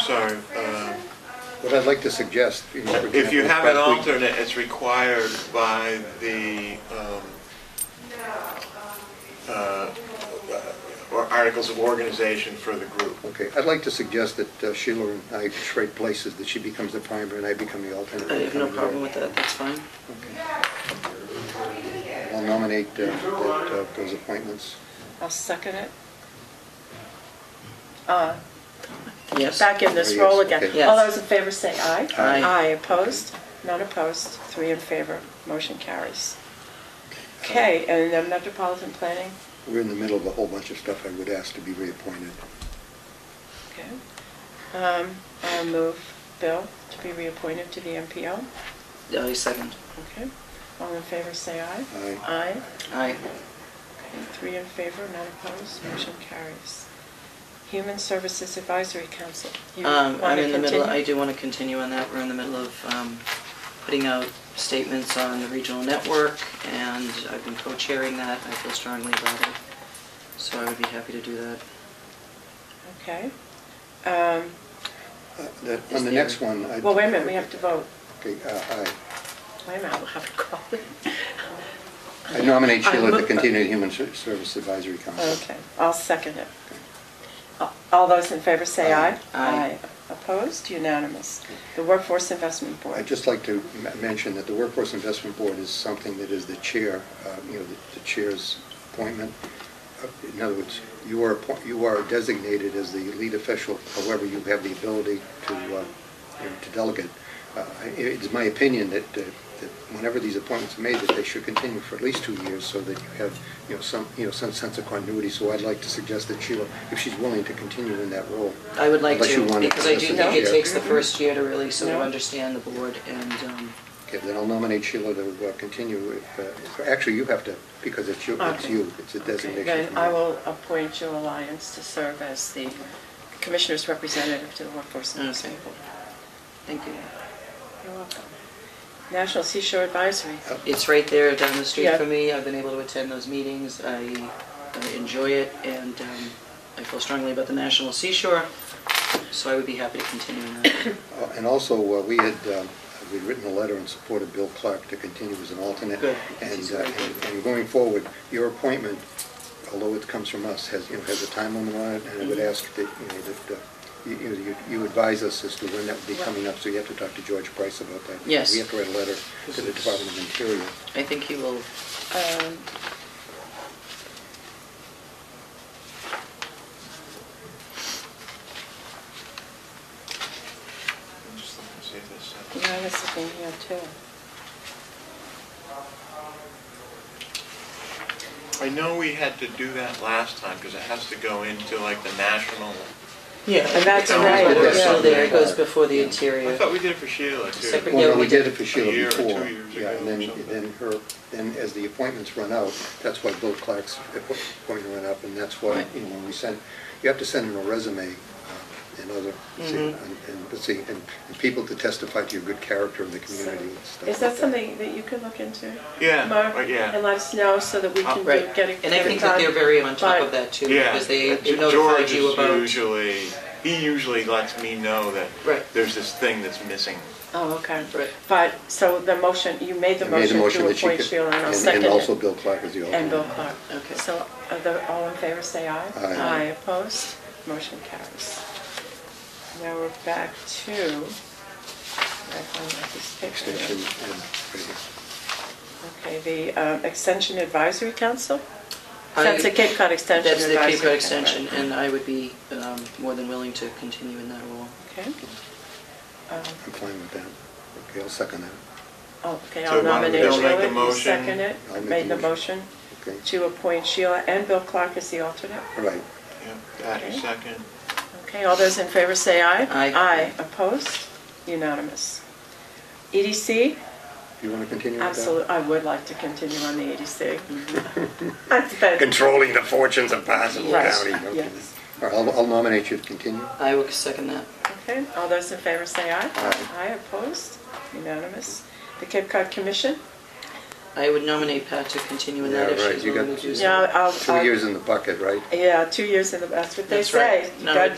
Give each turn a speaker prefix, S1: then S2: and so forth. S1: sorry. uh,
S2: What I'd like to suggest. you know, for
S1: If you
S2: example,
S1: have an
S2: last week-
S1: alternate, it's required by the, um, uh, or articles of organization for the group.
S2: Okay, I'd like to suggest that uh, Sheila and I trade places, that she becomes the primary and I become the alternate.
S3: I have no problem with that, that's fine.
S2: I'll nominate uh, that, uh, those appointments.
S4: I'll second it. Uh,
S3: Yes.
S4: Back in this role again.
S2: Okay.
S3: Yes.
S4: All those in favor say aye.
S3: Aye.
S4: Aye, opposed? None opposed, three in favor, motion carries. Okay, and then Metropolitan Planning,
S2: We're in the middle of a whole bunch of stuff I would ask to be reappointed.
S4: okay. Um, I'll move Bill to be reappointed to the MPO.
S3: I second.
S4: Okay, all in favor say aye.
S2: Aye.
S4: Aye.
S3: Aye.
S4: Okay, Three in favor, none opposed, motion carries. Human Services Advisory Council. You
S3: Um, I'm
S4: wanna
S3: in the middle, I
S4: continue?
S3: do want to continue on that. We're in the middle of um, putting out statements on the regional network, and I've been co-chairing that. I feel strongly about it, so I would be happy to do that.
S4: Okay. Um,
S2: Uh, that-
S3: Is
S2: On the
S3: there-
S2: next one. I'd-
S4: Well, wait a minute, we have to vote.
S2: Okay, uh,
S4: Wait a minute, I'll have to call it.
S2: I I nominate
S4: I
S2: Sheila to
S4: look- uh,
S2: continue the Human Ser- Service Advisory Council.
S4: Okay, I'll second it. A- All those in favor say aye.
S3: Aye.
S4: Opposed, unanimous. The Workforce Investment
S2: I'd
S4: Board.
S2: just like to m- mention that the Workforce Investment Board is something that is the chair, uh, you know, the- the chair's appointment. Uh, In other words, you are, appoint- you are designated as the lead official, however, you have the ability to, uh, you know, to delegate. Uh, I- It's my opinion that, uh, that whenever these appointments are made, that they should continue for at least two years so that you have, you know, some, you know, some sense of continuity. So I'd like to suggest that Sheila, if she's willing to continue in that role.
S3: I would like
S2: Unless you
S3: to,
S2: want it
S3: because I do
S2: listed
S3: think it
S2: here.
S3: takes the first year to really sort of
S4: No.
S3: understand the board, and um,
S2: Okay, then I'll nominate Sheila to uh, continue. if, uh, Actually, you have to, because it's you, it's
S4: Okay.
S2: you, it's a
S4: Okay,
S2: designation.
S4: Then
S2: from
S4: I
S2: you.
S4: will appoint Jill Alliance to serve as the Commissioner's representative to the Workforce Investment Board.
S3: thank you.
S4: You're welcome. National Seashore Advisory.
S2: Uh,
S3: It's right there down the street
S4: Yeah.
S3: from me. I've been able to attend those meetings. I I enjoy it, and um, I feel strongly about the National Seashore, so I would be happy to continue in that.
S2: Uh, And also, uh, we had, um, we'd written a letter in support of Bill Clark to continue as an alternate.
S3: Good.
S2: And,
S3: He's
S2: uh,
S3: very
S2: and
S3: good.
S2: and going forward, your appointment, although it comes from us, has, you know, has a time limit on it, and I would
S4: Mm-hmm.
S2: ask that, you know, that uh, you- you, you- you advise us as to when that would be coming up, so you have to talk to George Price about that.
S3: Yes.
S2: We have to write a letter to the Department of Interior.
S3: I think he will,
S4: Um,
S1: I'm just looking to see if this, uh,
S4: Yeah, I was looking here too.
S1: I know we had to do that last time because it has to go into like the national.
S3: yeah.
S4: And that's
S1: right,
S3: It's still
S1: yeah.
S3: there, it goes before the
S1: I
S3: interior.
S1: thought we did it for Sheila too.
S3: Secretary-
S2: Well,
S3: Yeah,
S2: no,
S3: we
S2: we did
S3: did
S2: it for Sheila
S1: a year or two
S2: before.
S1: years
S2: Yeah, and
S1: ago or
S2: then,
S1: something.
S2: then her, then as the appointments run out, that's why Bill Clark's appointment ran up, and that's why,
S3: Right.
S2: you know, when we send, you have to send in a resume uh, and other,
S4: Mm-hmm.
S2: see, and,
S3: Mhm.
S2: and- let's see, and and people to testify to your good character in the community and stuff
S4: Is
S2: like
S4: that something that you could look into?
S1: Yeah,
S4: Mark?
S1: right, yeah. Oh.
S4: And let us know so that we can do,
S3: Right,
S4: get it.
S3: and I
S4: get it
S3: think that they're
S4: done
S3: very on top
S4: by-
S3: of that too,
S1: Yeah,
S3: because they
S1: Ge-
S3: they notified
S1: George
S3: you
S1: is
S3: about.
S1: usually, he usually lets me know that
S3: Right.
S1: there's this thing that's missing.
S4: Oh, okay.
S3: Right.
S4: But, so the motion, you made the
S2: that. I made a motion
S4: motion to
S2: that she
S4: appoint
S2: could-
S4: Sheila and I'll
S2: and-
S4: second
S2: And also
S4: it.
S2: Bill Clark is the alternate.
S4: And Bill Clark.
S3: Okay.
S4: So are the, all in favor, say aye.
S2: Aye.
S4: opposed, motion carries. Now we're back to, I found this picture.
S2: Extension and,
S4: Okay, the um, Extension Advisory Council?
S3: I-
S4: That's the Cape Cod Extension
S3: That's the
S4: Advisory.
S3: Cape Cod
S4: Council,
S3: Extension,
S4: right.
S3: and I would be um, more than willing to continue in that role.
S4: Okay. Um,
S2: I'm fine with that. Okay, I'll second that.
S4: oh, Okay,
S1: So
S4: I'll
S1: why don't we
S4: nominate
S1: just make the
S4: Sheila, you
S1: motion?
S4: second it,
S2: I'll make
S4: made
S2: the
S4: the motion
S2: Okay.
S4: to appoint Sheila and Bill Clark as the alternate.
S2: All right.
S1: Yeah, that is
S4: Okay.
S1: second.
S4: Okay, all those in favor say aye.
S3: Aye.
S4: Aye, opposed, unanimous. E EDC,
S2: You want to continue with that?
S4: absolutely, I would like to continue on the EDC. That's been,
S2: Controlling the fortunes of Basil
S4: Yes,
S2: County. okay.
S4: yes.
S2: All right, I'll I'll nominate you to continue.
S3: I will second that.
S4: okay, all those in favor say aye.
S2: Aye.
S4: opposed, unanimous. The Cape Cod Commission?
S3: I would nominate Pat to continue in that
S2: Yeah,
S3: if
S2: right,
S3: she's
S2: you got-
S3: willing to do so.
S4: Yeah, I'll.
S2: Two
S4: I'll-
S2: years in the bucket, right?
S4: Yeah, two years in the, that's what they
S3: That's right.
S4: say.
S3: No,
S4: God
S3: it-